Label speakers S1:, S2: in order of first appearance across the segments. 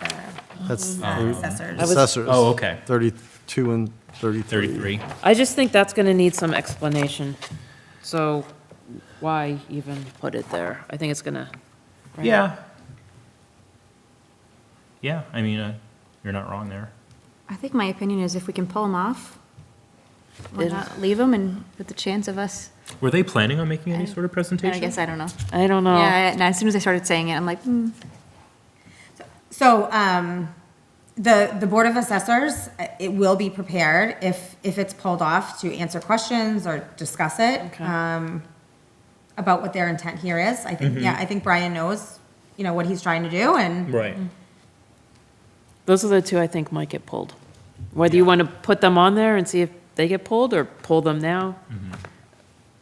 S1: uh,
S2: That's
S1: Mm.
S3: Um,
S4: not
S1: Oh.
S2: the
S4: assessors.
S5: I was-
S2: assessors.
S3: Oh, okay.
S2: 32 and 33.
S3: 33?
S5: I just think that's going to need some explanation. So why even put it there? I think it's going to.
S3: Yeah. Yeah, I mean, uh, you're not wrong there.
S4: I think my opinion is if we can pull them off, why
S5: It-
S4: not leave them and with the chance of us,
S3: Were they planning on making any
S4: I-
S3: sort of
S4: and
S3: presentation?
S4: I guess, I don't know.
S5: I don't know.
S4: Yeah, and as soon as I started saying it, I'm like, hmm.
S1: So um, the, the Board of Assessors, uh, it will be prepared if, if it's pulled off to answer questions or discuss it
S5: Okay.
S1: um, about what their intent here is. I
S3: Mm-hmm.
S1: think, yeah, I think Brian knows, you know, what he's trying to do and
S3: Right.
S5: Those are the two I think might get pulled. Whether you want to put them on there and see if they get pulled or pull them now,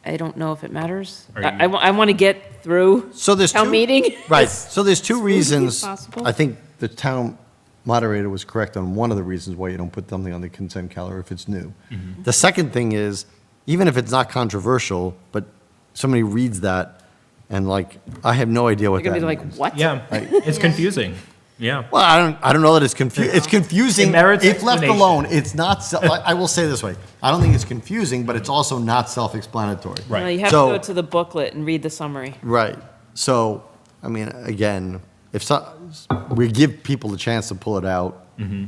S5: I don't know if it matters.
S3: Mm-hmm. Are
S5: I,
S3: you-
S5: want to get through.
S2: So there's two.
S5: Town meeting?
S2: Right, so there's two reasons.
S5: possible.
S2: I think the town moderator was correct on one of the reasons why you don't put something on the consent calendar if it's new.
S3: Mm-hmm.
S2: The second thing is, even if it's not controversial, but somebody reads that and like, I have no idea
S5: They're
S2: what that
S5: going to be like,
S2: means.
S5: what?
S3: Yeah, it's confusing. Yeah.
S2: Well, I don't, I don't know that it's confusing. It's confusing.
S3: It merits
S2: If left
S3: explanation.
S2: alone, it's not, se- I I will say this way, I don't think it's confusing, but it's also not self-explanatory.
S3: Right.
S5: No, you have to
S2: So-
S5: go to the booklet and read the summary.
S2: Right. So, I mean, again, if so, we give people the chance to pull it out.
S3: Mm-hmm.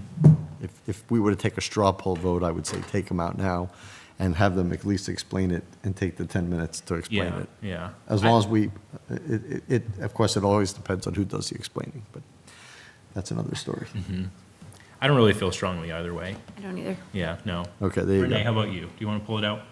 S2: If, if we were to take a straw poll vote, I would say take them out now and have them at least explain it and take the 10 minutes to explain
S3: Yeah,
S2: it.
S3: yeah.
S2: As
S3: I-
S2: long as we, it, it- it, of course, it always depends on who does the explaining, but that's another story.
S3: Mm-hmm. I don't really feel strongly either way.
S4: I don't either.
S3: Yeah, no.
S2: Okay, there you
S3: Renee, how
S2: go.
S3: about you? Do you want to pull it out?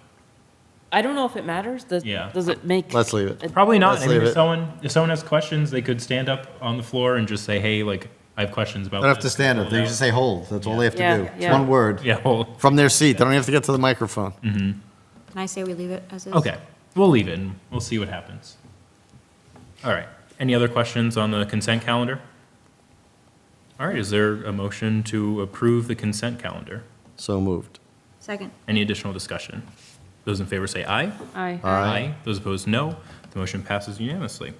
S5: I don't know if it matters. Does,
S3: Yeah.
S5: does it make?
S2: Let's leave it.
S3: Probably not.
S2: Let's
S3: I mean,
S2: leave
S3: if
S2: it.
S3: someone, if someone has questions, they could stand up on the floor and just say, hey, like, I have questions about
S2: They don't
S3: this.
S2: have to stand up.
S3: Pull it
S2: They
S3: out.
S2: just say hold. That's all they have
S5: Yeah,
S2: to do. It's
S5: yeah.
S2: one word.
S3: Yeah, Mm. well,
S2: From their seat. They don't have to get to the microphone.
S4: Can I say we leave it as is?
S3: okay. We'll leave it and we'll see what happens. All right. Any other questions on the consent calendar? All right, is there a motion to approve the consent calendar?
S2: So moved.
S4: Second.
S3: Any additional discussion? Those in favor say aye.
S5: Aye.
S2: Aye.
S3: Those opposed, no. The motion passes unanimously.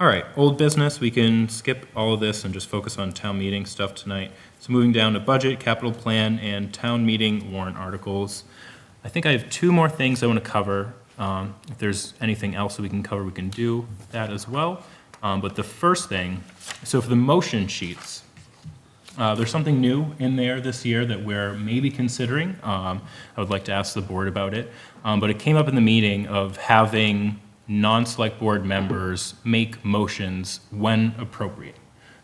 S3: All right, old business, we can skip all of this and just focus on town meeting stuff tonight. So moving down to budget, capital plan, and town meeting warrant articles. I think I have two more things I want to cover. Um, If there's anything else that we can cover, we can do that as well. Um, But the first thing, so for the motion sheets, uh, There's something new in there this year that we're maybe considering. Um, I would like to ask the board about it. Um, But it came up in the meeting of having non-select board members make motions when appropriate.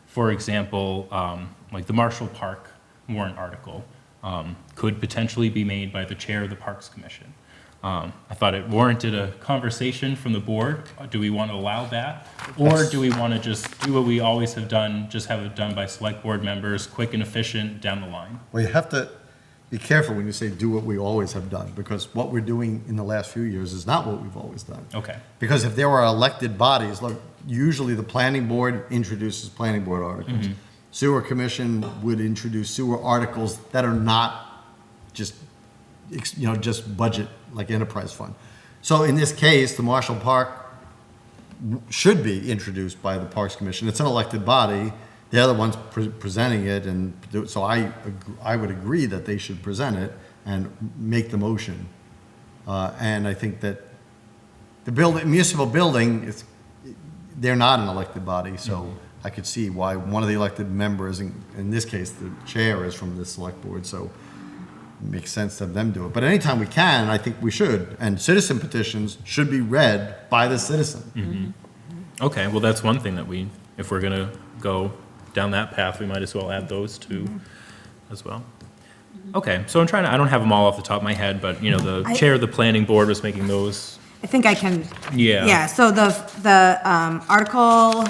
S3: For example, um, like the Marshall Park warrant article um, could potentially be made by the chair of the Parks Commission. Um, I thought it warranted a conversation from the board. Do we want to allow that? Or do we want to just do what we always have done, just have it done by select board members, quick and efficient down the line?
S2: Well, you have to be careful when you say do what we always have done, because what we're doing in the last few years is not what we've always done.
S3: Okay.
S2: Because if there were elected bodies, look, usually the planning board introduces planning board articles. Sewer commission would introduce sewer articles that are not just, ex- you know, just budget, like enterprise fund. So in this case, the Marshall Park should be introduced by the Parks Commission. It's an elected body. The other one's pre- presenting it, and do- so I, ag- I would agree that they should present it and make the motion. Uh, And I think that the building, municipal building, it's, they're not an elected body, so I could see why one of the elected members, in in this case, the chair is from the select board, so it makes sense to have them do it. But anytime we can, I think we should. And citizen petitions should be read by the citizen.
S3: Okay, well, that's one thing that we, if we're going to go down that path, we might as well add those two
S1: Mm-hmm.
S3: as well. Okay, so I'm trying to, I don't have them all off the top of my head, but, you know, the
S1: I-
S3: chair of the planning board was making those.
S1: I think I can.
S3: Yeah.
S1: Yeah, so the, the um, article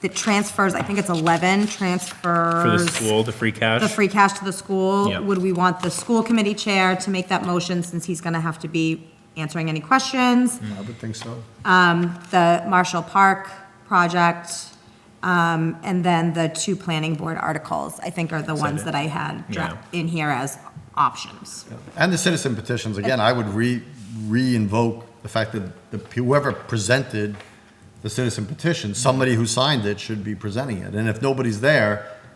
S1: that transfers, I think it's 11 transfers.
S3: For the school, the free cash?
S1: the free cash to the
S3: Yeah.
S1: school, would we want the school committee chair to make that motion since he's gonna have to be answering any questions?
S3: Mm.
S2: I would think so.
S1: The Marshall Park project, um, and then the two planning board articles, I think are the ones
S3: it.
S1: that I had dra-
S3: Yeah.
S1: in here as options.
S2: And the citizen petitions, again, I would re, re-invoke the fact that the- whoever presented the citizen petition, somebody who signed it should be presenting it. And if nobody's there,